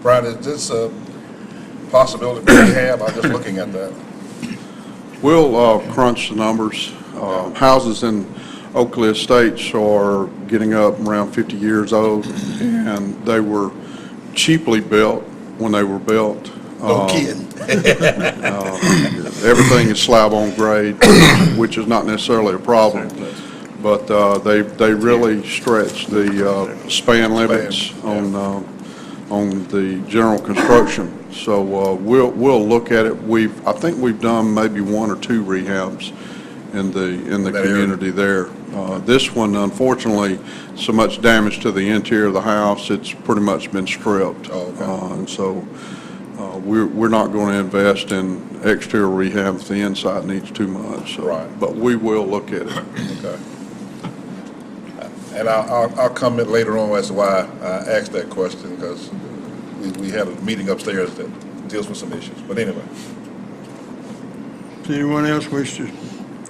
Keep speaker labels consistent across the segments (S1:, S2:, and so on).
S1: Brian, is this a possibility we have? I'm just looking at that.
S2: We'll uh, crunch the numbers. Uh, Houses in Oakley Estates are getting up around 50 years old, and they were cheaply built when they were built.
S1: No
S2: Uh,
S1: kidding.
S2: Everything is slab on grade, which is not necessarily a problem, but uh, they, they really stretch the uh, span limits on, uh, on the general construction. So uh, we'll, we'll look at it. We've, I think we've done maybe one or two rehabs in the, in the
S1: That area.
S2: community there. Uh, This one, unfortunately, so much damage to the interior of the house, it's pretty much been stripped.
S1: Oh, okay.
S2: Uh, And so uh, We're, we're not going to invest in exterior rehab if the inside needs too much, so.
S1: Right.
S2: But we will look at it.
S1: Okay. And I'll, I'll- I'll comment later on as to why I asked that question, because we, we had a meeting upstairs that deals with some issues. But anyway,
S3: Does anyone else wish to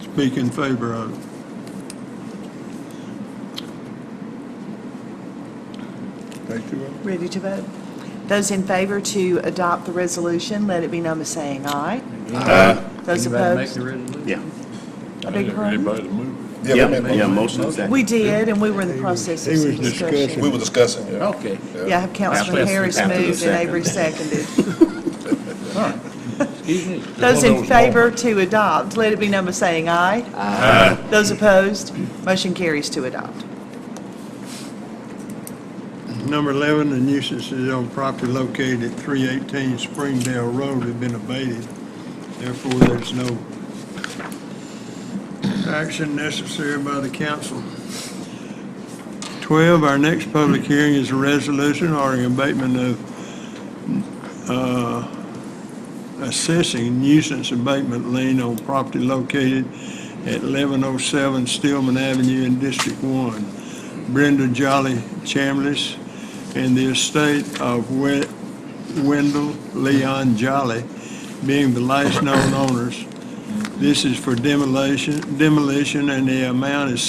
S3: speak in favor of it? Take the vote.
S4: Ready to vote? Those in favor to adopt the resolution, let it be known by saying aye. Those
S5: Anybody make
S4: opposed?
S5: the resolution?
S6: Yeah.
S4: I beg your pardon?
S7: Anybody move?
S1: yeah, we made a
S6: Yeah,
S1: motion.
S6: motion is second.
S4: We did, and we were in the process of
S3: He was
S4: some discussion.
S3: discussing.
S1: we were discussing, yeah.
S5: Okay.
S4: Yeah, I have Councilman
S6: After-
S4: Harris
S6: after the
S4: moved and
S6: second.
S4: Avery seconded.
S5: Excuse me.
S4: Those
S7: One
S4: in
S7: of those
S4: favor to adopt, let it be known by saying aye. Aye. Those opposed, motion carries to adopt.
S3: Number 11, the nuisances on property located at 318 Springdale Road have been abated. Therefore, there's no action necessary by the council. 12, our next public hearing is a resolution ordering abatement of, uh, assessing nuisance abatement lien on property located at 1107 Stillman Avenue in District 1. Brenda Jolly Chambliss and the estate of We- Wendell Leon Jolly being the last known owners. This is for demolition, demolition, and the amount is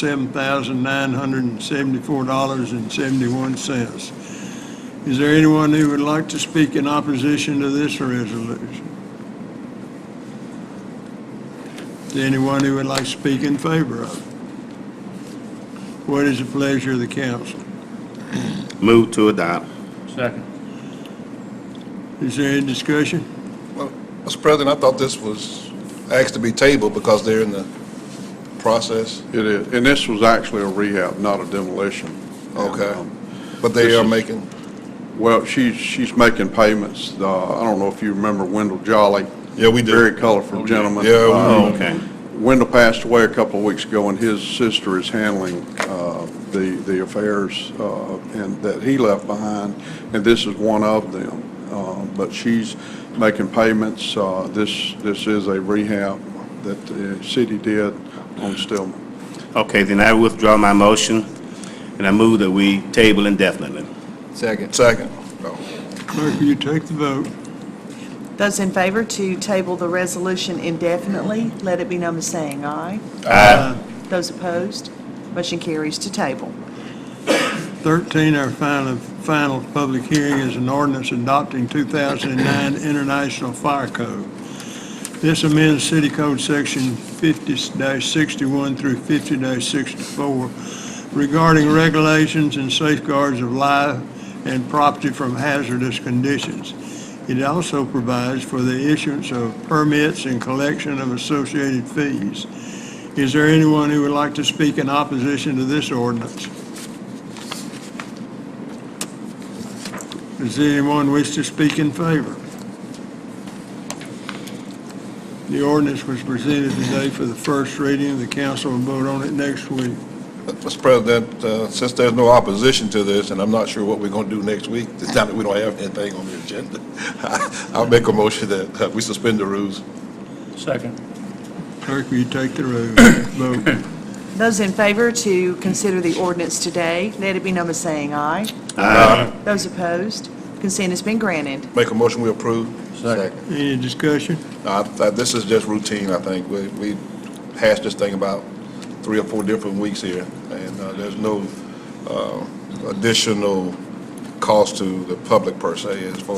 S3: $7,974.71. Is there anyone who would like to speak in opposition to this resolution? Is there anyone who would like to speak in favor of it? What is the pleasure of the council?
S6: Move to adopt.
S5: Second.
S3: Is there any discussion?
S1: Well, Mr. President, I thought this was asked to be tabled because they're in the process,
S2: It is, and this was actually a rehab, not a demolition.
S1: Okay.
S2: And, um,
S1: but they
S2: This
S1: are
S2: is-
S1: making,
S2: Well, she's, she's making payments. Uh, I don't know if you remember Wendell Jolly.
S1: Yeah, we do. Oh,
S2: Very colorful gentleman.
S1: Yeah, we
S2: Uh,
S1: do.
S6: Oh, okay.
S2: Wendell passed away a couple of weeks ago, and his sister is handling uh, the the affairs uh, and that he left behind, and this is one of them. Uh, But she's making payments. Uh, This this is a rehab that the city did on Stillman.
S6: Okay, then I withdraw my motion, and I move that we table indefinitely.
S5: Second.
S1: second. Oh,
S3: Clerk, will you take the vote?
S4: Those in favor to table the resolution indefinitely, let it be known by saying aye. Those opposed, motion carries to table.
S3: 13, our final, final public hearing is an ordinance adopting 2009 International Fire Code. This amends City Code Section 50-61 through 50-64 regarding regulations and safeguards of life and property from hazardous conditions. It also provides for the issuance of permits and collection of associated fees. Is there anyone who would like to speak in opposition to this ordinance? Does anyone wish to speak in favor? The ordinance was presented today for the first reading. The council will vote on it next week.
S1: Mr. President, uh, since there's no opposition to this, and I'm not sure what we're going to do next week, it's not that we don't have anything on the agenda, I'll make a motion that uh, we suspend the rules.
S5: Second.
S3: Clerk, will you take the roll? Vote.
S4: Those in favor to consider the ordinance today, let it be known by saying aye. Those opposed, consent has been granted.
S1: Make a motion, we approve.
S5: Second.
S3: Any discussion?
S1: Uh, I- This is just routine, I think. We we hashed this thing about three or four different weeks here, and uh, there's no uh, additional cost to the public per se as far